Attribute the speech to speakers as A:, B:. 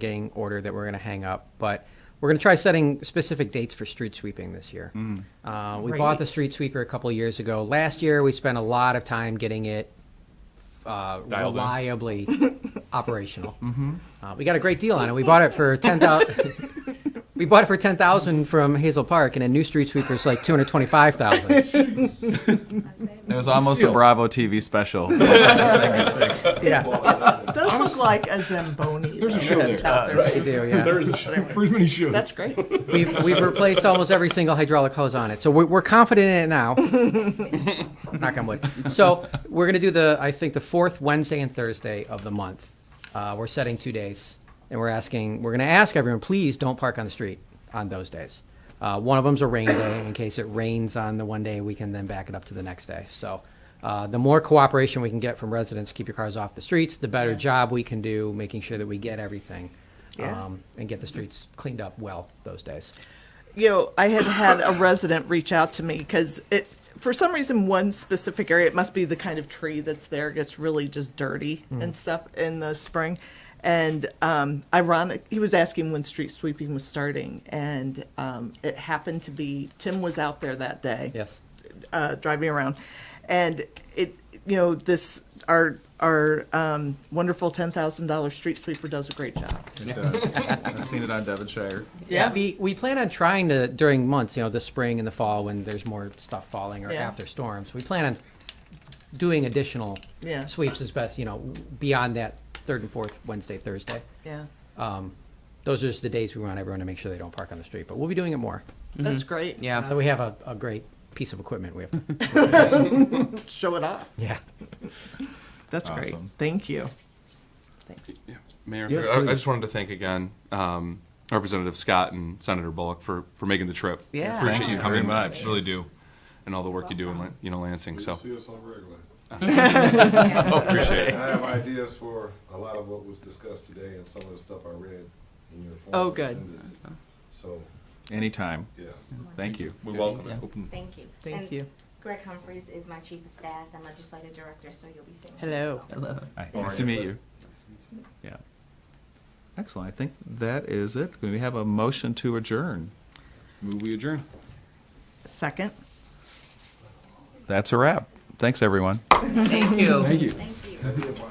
A: getting order that we're going to hang up, but we're going to try setting specific dates for street sweeping this year.
B: Mm.
A: Uh, we bought the street sweeper a couple years ago. Last year, we spent a lot of time getting it uh,
B: Dialed in. Mm-hmm.
A: reliably operational. Uh, we got a great deal on it. We bought it for ten thousand. we bought it for ten thousand from Hazel Park, and a new street sweeper is like two hundred twenty-five thousand.
B: It was almost a Bravo TV special. This thing is fixed.
A: Yeah,
C: It does look like a Zamboni.
D: There's a
C: though,
D: show
C: no
D: there.
C: doubt.
A: they
C: There's-
A: do. Yeah.
D: There is a show. There's many shows.
C: That's great.
A: We've, we've replaced almost every single hydraulic hose on it, so we're, we're confident in it now. Knock on wood. So we're gonna do the, I think, the fourth Wednesday and Thursday of the month. Uh, we're setting two days, and we're asking, we're gonna ask everyone, please don't park on the street on those days. Uh, one of them's a rain day, in case it rains on the one day, we can then back it up to the next day. So, uh, the more cooperation we can get from residents, keep your cars off the streets, the better job we can do, making sure that we get everything.
C: Yeah.
A: um, And get the streets cleaned up well those days.
C: you know, I had had a resident reach out to me because it, for some reason, one specific area, it must be the kind of tree that's there, gets really just dirty
D: Hmm.
C: and stuff in the spring. And um, ironic, he was asking when street sweeping was starting, and um, it happened to be Tim was out there that day
A: Yes.
C: uh, driving around, and it you know this our our um, wonderful ten thousand dollar street sweeper does a great job.
B: It does. I've seen it on Devonshire.
C: Yeah.
A: We, we plan on trying to, during months, you know, the spring and the fall, when there's more stuff falling or
C: Yeah.
A: after storms, we plan on doing additional
C: Yeah.
A: sweeps as best, you know, beyond that third and fourth Wednesday, Thursday.
C: Yeah,
A: Those are just the days we want everyone to make sure they don't park on the street, but we'll be doing it more.
C: that's great.
A: Now that we have a, a great piece of equipment, we have to,
C: show it off.
A: yeah.
C: That's great.
B: Awesome.
C: Thank you. Thanks.
E: Mayor,
D: Yes,
E: I, I
D: please.
E: just wanted to thank again um, Representative Scott and Senator Bullock for, for making the trip.
C: Yeah.
E: appreciate
C: Thank
E: you
B: you
E: coming.
B: very much.
E: Really do, and all the work you do in Lan- you know Lansing. So
F: See us on regular.
E: appreciate
F: I
E: it.
F: have ideas for a lot of what was discussed today and some of the stuff I read in your. form
C: Oh, good.
F: agendas. So,
B: Anytime.
F: yeah.
B: Thank you.
E: We welcome it. Open-
G: Thank you.
C: Thank
G: And
C: you.
G: Greg Humphreys is my chief of staff and legislative director, so you'll be seeing. him.
C: Hello.
B: Hi. Nice to meet you. Yeah. Excellent. I think that is it. We have a motion to adjourn.
E: Move we adjourn.
C: Second.
B: That's a wrap. Thanks, everyone.
D: Thank you.
G: Thank you.
F: Maybe if I